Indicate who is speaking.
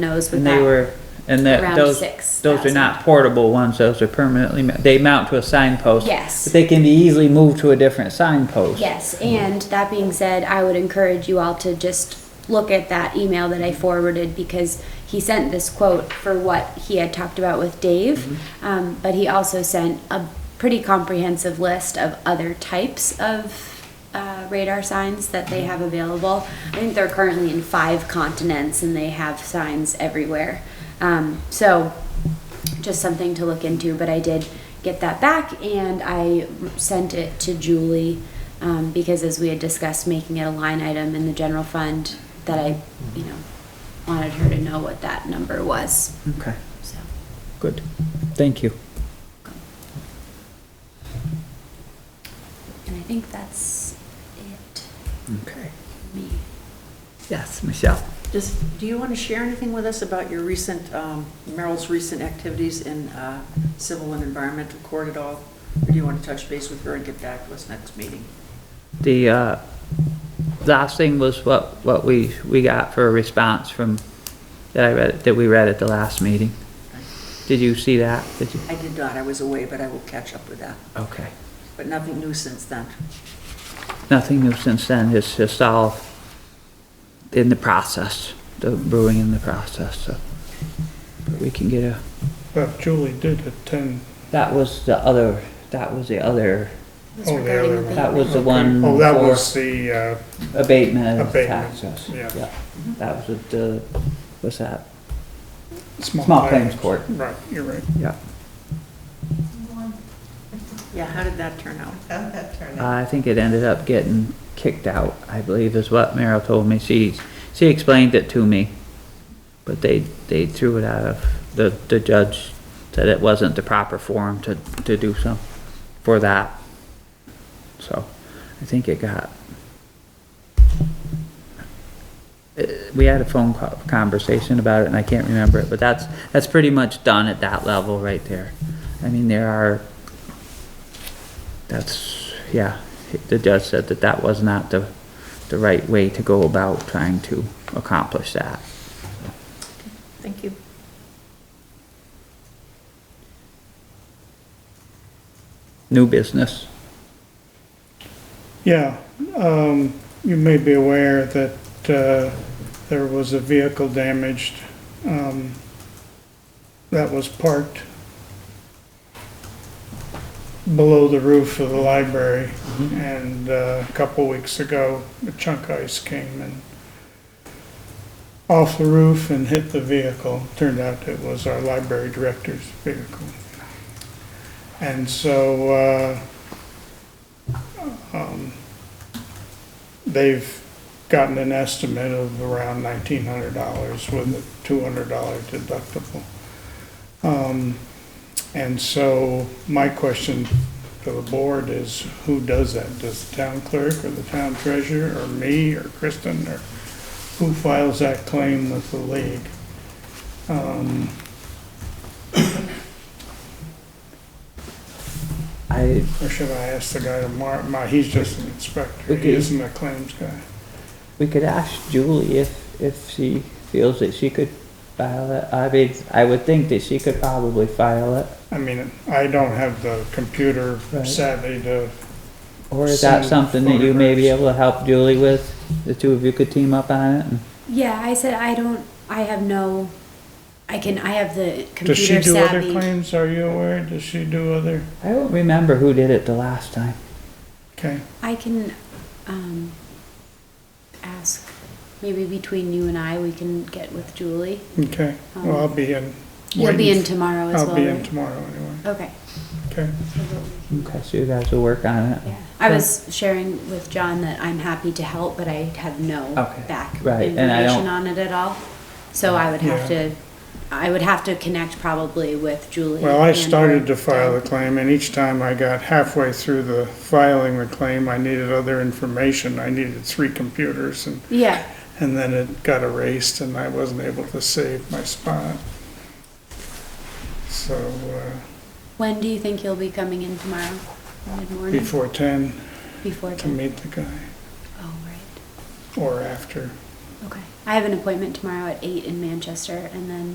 Speaker 1: knows with
Speaker 2: And they
Speaker 1: that.
Speaker 2: were, and that,
Speaker 1: Around
Speaker 2: those, those are
Speaker 1: 6,000.
Speaker 2: not portable ones, those are permanently, ma- they mount to a signpost.
Speaker 1: Yes.
Speaker 2: But they can be easily moved to a different signpost.
Speaker 1: Yes, and that being said, I would encourage you all to just look at that email that I forwarded because he sent this quote for what he had talked about with Dave,
Speaker 2: Mm-hmm.
Speaker 1: um, but he also sent a pretty comprehensive list of other types of uh, radar signs that they have available. I think they're currently in five continents and they have signs everywhere. Um, so just something to look into, but I did get that back and I sent it to Julie. Um, because as we had discussed, making it a line item in the general fund that I, you know, wanted her to know what that number was,
Speaker 2: Okay,
Speaker 1: so.
Speaker 2: good, thank you.
Speaker 1: And I think that's it,
Speaker 2: Okay.
Speaker 1: me.
Speaker 2: Yes, Michelle?
Speaker 3: Just, do you want to share anything with us about your recent, um, Merrill's recent activities in uh, civil and environmental court at all? Or do you want to touch base with her and get back to us next meeting?
Speaker 2: The, uh, last thing was what, what we, we got for a response from, that I read, that we read at the last meeting. Did you see that? Did you?
Speaker 3: I did not, I was away, but I will catch up with that.
Speaker 2: Okay.
Speaker 3: But nothing new since then.
Speaker 2: Nothing new since then, it's just all in the process, the brewing in the process, so. But we can get a,
Speaker 4: But Julie did attend.
Speaker 2: that was the other, that was the other,
Speaker 1: That's
Speaker 4: Oh, the
Speaker 1: regarding
Speaker 4: other one.
Speaker 2: that was the
Speaker 4: Okay.
Speaker 2: one
Speaker 4: Oh, that
Speaker 2: for-
Speaker 4: was the, uh,
Speaker 2: abatement of
Speaker 4: Abatement,
Speaker 2: taxes.
Speaker 4: yeah.
Speaker 2: That was the, what's that?
Speaker 4: small.
Speaker 2: Small claims court.
Speaker 4: Right, you're right.
Speaker 2: Yeah.
Speaker 3: Yeah, how did that turn out?
Speaker 5: How'd that turn out?
Speaker 2: Uh, I think it ended up getting kicked out, I believe is what Merrill told me. She, she explained it to me. But they, they threw it out of, the, the judge said it wasn't the proper forum to, to do so, for that. So, I think it got. Uh, We had a phone co- conversation about it and I can't remember it, but that's, that's pretty much done at that level right there. I mean, there are that's, yeah, the judge said that that was not the, the right way to go about trying to accomplish that.
Speaker 3: Thank you.
Speaker 2: New business.
Speaker 4: Yeah, um, you may be aware that, uh, there was a vehicle damaged, um, that was parked below the roof of the library. And, uh, a couple weeks ago, a chunk of ice came and off the roof and hit the vehicle. Turned out it was our library director's vehicle. And so, uh, they've gotten an estimate of around nineteen hundred dollars with a two hundred dollar deductible. Um, and so my question to the board is, who does that? Does the town clerk or the town treasurer or me or Kristen or who files that claim with the league? Um,
Speaker 2: I,
Speaker 4: or should I ask the guy tomorrow? My, he's just an inspector.
Speaker 2: Okay.
Speaker 4: He isn't a claims guy.
Speaker 2: we could ask Julie if, if she feels that she could file it. I mean, I would think that she could probably file it.
Speaker 4: I mean, I don't have the computer
Speaker 2: Right.
Speaker 4: savvy to
Speaker 2: Or is that
Speaker 4: Send
Speaker 2: something that you may be able to help Julie with? The two of you could team up on it? and-
Speaker 1: Yeah, I said I don't, I have no, I can, I have the
Speaker 4: Does she
Speaker 1: computer
Speaker 4: do other
Speaker 1: savvy.
Speaker 4: claims, are you aware? Does she do other,
Speaker 2: I don't remember who did it the last time.
Speaker 4: okay,
Speaker 1: I can, um, ask, maybe between you and I, we can get with Julie.
Speaker 4: okay. Well, I'll be in.
Speaker 1: Um, You'll be in
Speaker 4: waiting-
Speaker 1: tomorrow as well,
Speaker 4: I'll be in
Speaker 1: right?
Speaker 4: tomorrow anyway,
Speaker 1: Okay.
Speaker 4: okay.
Speaker 2: Okay, so you guys will work on it.
Speaker 1: Yeah. I was sharing with John that I'm happy to help, but I have no
Speaker 2: Okay.
Speaker 1: back
Speaker 2: Right, and I
Speaker 1: information on
Speaker 2: don't-
Speaker 1: it at all. So I would have
Speaker 4: Yeah.
Speaker 1: to, I would have to connect probably with Julie.
Speaker 4: Well, I
Speaker 1: and
Speaker 4: started
Speaker 1: or
Speaker 4: to file a
Speaker 1: Doug.
Speaker 4: claim, and each time I got halfway through the filing the claim, I needed other information. I needed three computers, and,
Speaker 1: Yeah,
Speaker 4: and then it got erased, and I wasn't able to save my spot. So, uh,
Speaker 1: when do you think you'll be coming in tomorrow? Mid-morning,
Speaker 4: before ten
Speaker 1: before
Speaker 4: to
Speaker 1: ten?
Speaker 4: meet the guy,
Speaker 1: Oh, right,
Speaker 4: or after.
Speaker 1: okay. I have an appointment tomorrow at eight in Manchester, and then